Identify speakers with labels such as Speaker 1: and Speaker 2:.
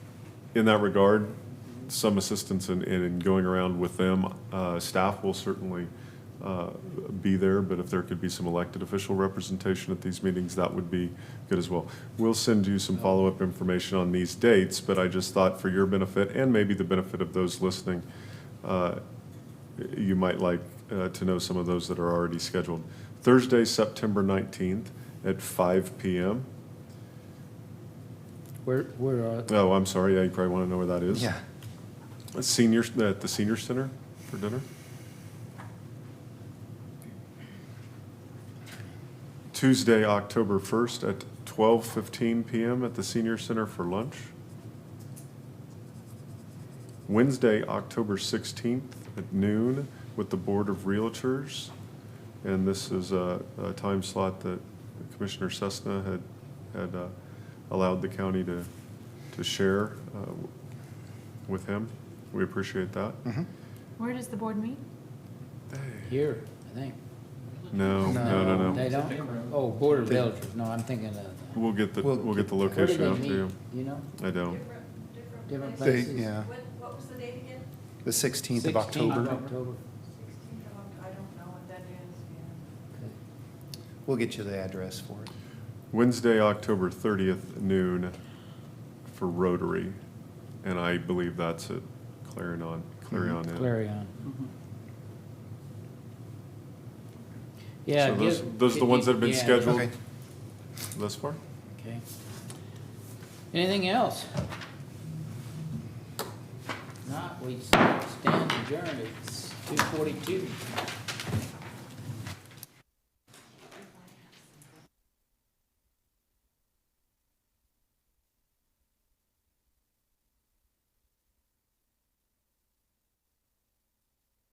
Speaker 1: in that regard, some assistance in, in going around with them. Uh, Staff will certainly uh, be there, but if there could be some elected official representation at these meetings, that would be good as well. We'll send you some follow-up information on these dates, but I just thought for your benefit and maybe the benefit of those listening, uh, you might like uh, to know some of those that are already scheduled. Thursday, September 19th at 5 PM.
Speaker 2: Where, where are,
Speaker 1: Oh, I'm sorry, yeah, you probably want to know where that is.
Speaker 3: Yeah.
Speaker 1: A Senior, at the senior center for dinner? Tuesday, October 1st at 12:15 PM at the senior center for lunch. Wednesday, October 16th at noon with the Board of Realtors. And this is a, a time slot that Commissioner Cessna had, had uh, allowed the county to, to share uh, with him. We appreciate that.
Speaker 3: Mm-hmm.
Speaker 4: Where does the board meet?
Speaker 2: here, I think.
Speaker 1: No, no, no,
Speaker 2: They
Speaker 1: no.
Speaker 2: don't? Oh, Board of Realtors, no, I'm thinking of.
Speaker 1: We'll get the,
Speaker 3: Well,
Speaker 1: we'll get the
Speaker 2: Where do
Speaker 1: location
Speaker 2: they
Speaker 1: out to
Speaker 2: meet?
Speaker 1: you.
Speaker 2: You know?
Speaker 1: I don't.
Speaker 5: Different, different
Speaker 2: Different
Speaker 5: places.
Speaker 3: They,
Speaker 2: places.
Speaker 3: yeah,
Speaker 5: What, what was the date again?
Speaker 3: the 16th
Speaker 2: 16th
Speaker 3: of October.
Speaker 2: October.
Speaker 5: Sixteenth of October, I don't know what that is, yeah.
Speaker 2: Okay.
Speaker 3: We'll get you the address for it.
Speaker 1: Wednesday, October 30th noon for Rotary. And I believe that's at Clarion, Mm-hmm. Clarion Inn.
Speaker 2: Clarion.
Speaker 3: Mm-hmm.
Speaker 2: Yeah.
Speaker 1: So those-
Speaker 2: give-
Speaker 1: those are the ones that have been
Speaker 2: yeah.
Speaker 1: scheduled?
Speaker 3: Okay.
Speaker 1: Thus far?
Speaker 2: Okay. Anything else? Not, we stand adjourned, it's two forty-two.